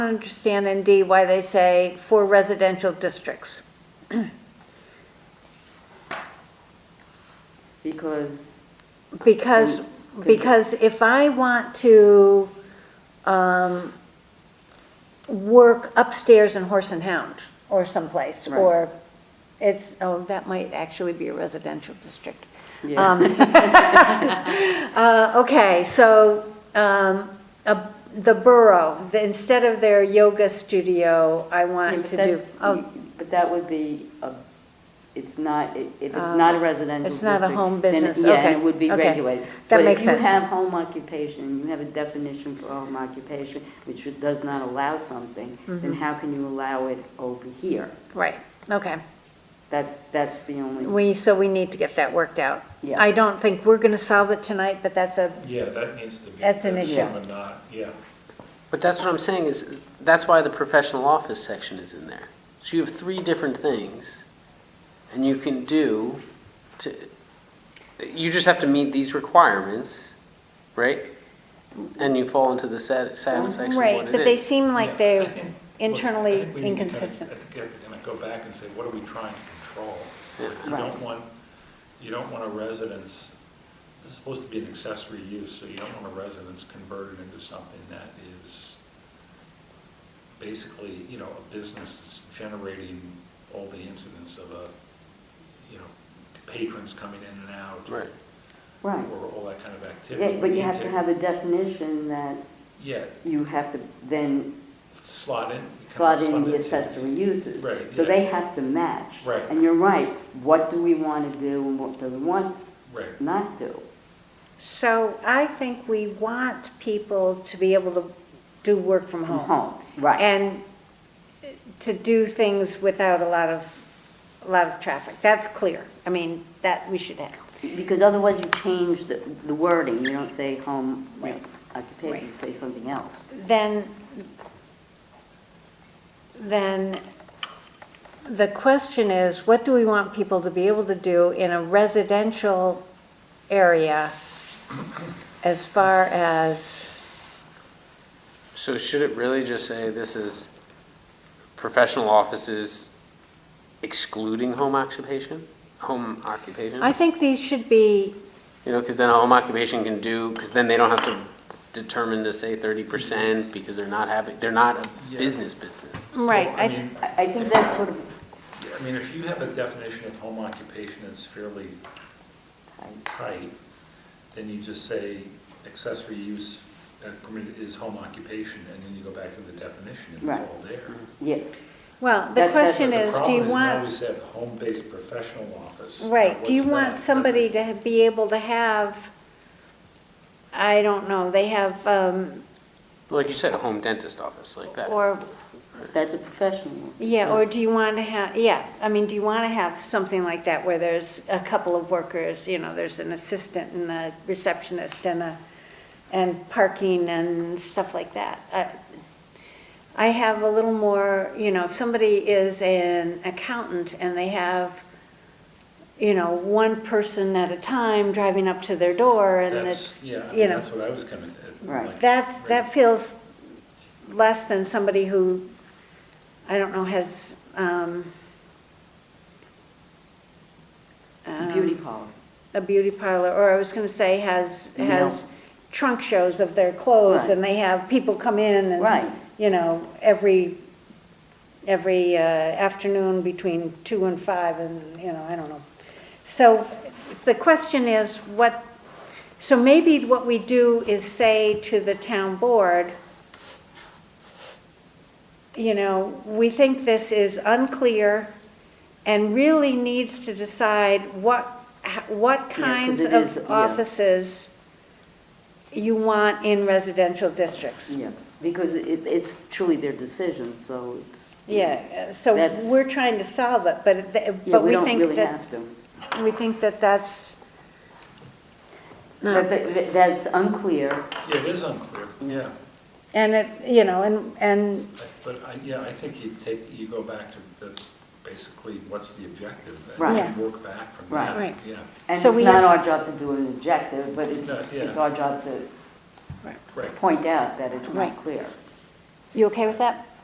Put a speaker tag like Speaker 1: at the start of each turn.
Speaker 1: I don't understand in D why they say for residential districts.
Speaker 2: because,
Speaker 1: Because,
Speaker 2: Could-
Speaker 1: because if I want to um, work upstairs in Horse and Hound or someplace,
Speaker 2: Right.
Speaker 1: or it's, oh, that might actually be a residential district.
Speaker 2: yeah,
Speaker 1: Um, Uh, Okay, so um, a- the borough, the- instead of their yoga studio, I
Speaker 2: Yeah,
Speaker 1: want
Speaker 2: but
Speaker 1: to
Speaker 2: that-
Speaker 1: do, oh,
Speaker 2: But that would be, a- it's not, if it's not a residential
Speaker 1: Um, it's not a
Speaker 2: district,
Speaker 1: home
Speaker 2: then it-
Speaker 1: business.
Speaker 2: Yeah, and
Speaker 1: Okay,
Speaker 2: it would be
Speaker 1: okay.
Speaker 2: regulated.
Speaker 1: That makes
Speaker 2: But
Speaker 1: sense.
Speaker 2: if you have home occupation, you have a definition for home occupation, which does not allow something,
Speaker 1: Mm-hmm.
Speaker 2: then how can you allow it over here?
Speaker 1: right, okay.
Speaker 2: That's, that's the only,
Speaker 1: We, so we need to get that worked out.
Speaker 2: Yeah.
Speaker 1: I don't think we're going to solve it tonight, but that's a,
Speaker 3: Yeah, that needs to be.
Speaker 1: That's an issue.
Speaker 3: someone Not, yeah.
Speaker 4: But that's what I'm saying is, that's why the professional office section is in there. So you have three different things, and you can do to, you just have to meet these requirements, right? And you fall into the sat- satisfaction of
Speaker 1: right,
Speaker 4: what
Speaker 1: but
Speaker 4: it
Speaker 1: they
Speaker 4: is.
Speaker 1: seem
Speaker 3: Yeah, I
Speaker 1: like they're
Speaker 3: think- look, I
Speaker 1: internally
Speaker 3: think we need to kind of-
Speaker 1: inconsistent.
Speaker 3: I think you have to kind of go back and say, what are we trying to control? Like, You
Speaker 2: Right.
Speaker 3: don't want, you don't want a residence, this is supposed to be an accessory use, so you don't want a residence converted into something that is basically, you know, a business that's generating all the incidents of a, you know, patrons coming in and out.
Speaker 4: Right.
Speaker 2: right.
Speaker 3: Or all that kind of activity.
Speaker 2: Yeah, But
Speaker 3: We
Speaker 2: you
Speaker 3: need
Speaker 2: have to have a definition that
Speaker 3: Yeah,
Speaker 2: you have to then
Speaker 3: slot in. kind of
Speaker 2: slot in the
Speaker 3: into-
Speaker 2: accessory uses.
Speaker 3: Right,
Speaker 2: So
Speaker 3: yeah.
Speaker 2: they have to match.
Speaker 3: Right.
Speaker 2: And you're right, what do we want to do and what do we want
Speaker 3: Right.
Speaker 2: not do?
Speaker 1: So I think we want people to be able to do work from
Speaker 2: From
Speaker 1: home.
Speaker 2: home, right.
Speaker 1: And to do things without a lot of, a lot of traffic. That's clear. I mean, that we should have.
Speaker 2: Because otherwise you change the the wording, you don't say home you know,
Speaker 1: Right.
Speaker 2: occupation, you say something else.
Speaker 1: then, then the question is, what do we want people to be able to do in a residential area as far as,
Speaker 4: So should it really just say this is professional offices excluding home occupation? Home occupation?
Speaker 1: I think these should be,
Speaker 4: You know, because then a home occupation can do, because then they don't have to determine to say thirty percent because they're not having, they're not a
Speaker 3: Yeah.
Speaker 4: business business.
Speaker 1: right,
Speaker 3: Well, I
Speaker 1: I,
Speaker 3: mean,
Speaker 2: I I think that's sort of,
Speaker 3: I mean, if you have a definition of home occupation that's fairly tight, then you just say accessory use uh, permitted is home occupation, and then you go back to the definition, and
Speaker 2: Right.
Speaker 3: it's all there.
Speaker 2: yeah,
Speaker 1: well, the
Speaker 2: That- that's-
Speaker 1: question
Speaker 3: But the
Speaker 1: is, do you
Speaker 3: problem Now we
Speaker 1: want,
Speaker 3: said home-based professional office. Now,
Speaker 1: right, do you
Speaker 3: what's
Speaker 1: want
Speaker 3: that?
Speaker 1: somebody to be able to have, I don't know, they have, um,
Speaker 4: Like you said, a home dentist office like that.
Speaker 1: or
Speaker 2: that's a professional.
Speaker 1: Yeah, or do you want to have, yeah, I mean, do you want to have something like that where there's a couple of workers, you know, there's an assistant and a receptionist and a, and parking and stuff like that? Uh, I have a little more, you know, if somebody is an accountant and they have, you know, one person at a time driving up to their door and
Speaker 3: That's,
Speaker 1: it's,
Speaker 3: yeah, I
Speaker 1: you
Speaker 3: mean,
Speaker 1: know.
Speaker 3: that's what I was coming at.
Speaker 2: Right.
Speaker 3: like,
Speaker 1: That's, that
Speaker 3: right.
Speaker 1: feels less than somebody who, I don't know, has, um, um,
Speaker 2: Beauty parlor,
Speaker 1: A beauty parlor, or I was gonna say has,
Speaker 2: No.
Speaker 1: has trunk shows of their clothes
Speaker 2: Right.
Speaker 1: and they have people come in and,
Speaker 2: Right.
Speaker 1: you know, every, every uh, afternoon between two and five and, you know, I don't know. So s- the question is what, so maybe what we do is say to the town board, you know, we think this is unclear and really needs to decide what, h- what kinds
Speaker 2: 'cause it is-
Speaker 1: of
Speaker 2: yeah.
Speaker 1: offices you want in residential districts.
Speaker 2: yeah, because it- it's truly their decision, so it's.
Speaker 1: Yeah, uh, so
Speaker 2: That's-
Speaker 1: we're trying to solve it, but, it- th-
Speaker 2: Yeah,
Speaker 1: but we
Speaker 2: we don't
Speaker 1: think
Speaker 2: really
Speaker 1: that,
Speaker 2: have to.
Speaker 1: we think that that's
Speaker 2: But
Speaker 1: not,
Speaker 2: but that's unclear,
Speaker 3: Yeah, it is unclear, yeah.
Speaker 1: and it, you know, and, and
Speaker 3: But I, yeah, I think you take, you go back to the, basically, what's the objective? and
Speaker 2: Right.
Speaker 1: Yeah.
Speaker 3: you Work back from
Speaker 2: Right.
Speaker 3: that.
Speaker 1: Right.
Speaker 3: Yeah,
Speaker 2: and it's
Speaker 1: So we have-
Speaker 2: not our job to do an objective, but it's
Speaker 3: No, yeah.
Speaker 2: it's our job to
Speaker 3: right.
Speaker 2: point out that it's
Speaker 1: Right.
Speaker 2: not clear.
Speaker 1: You okay with that?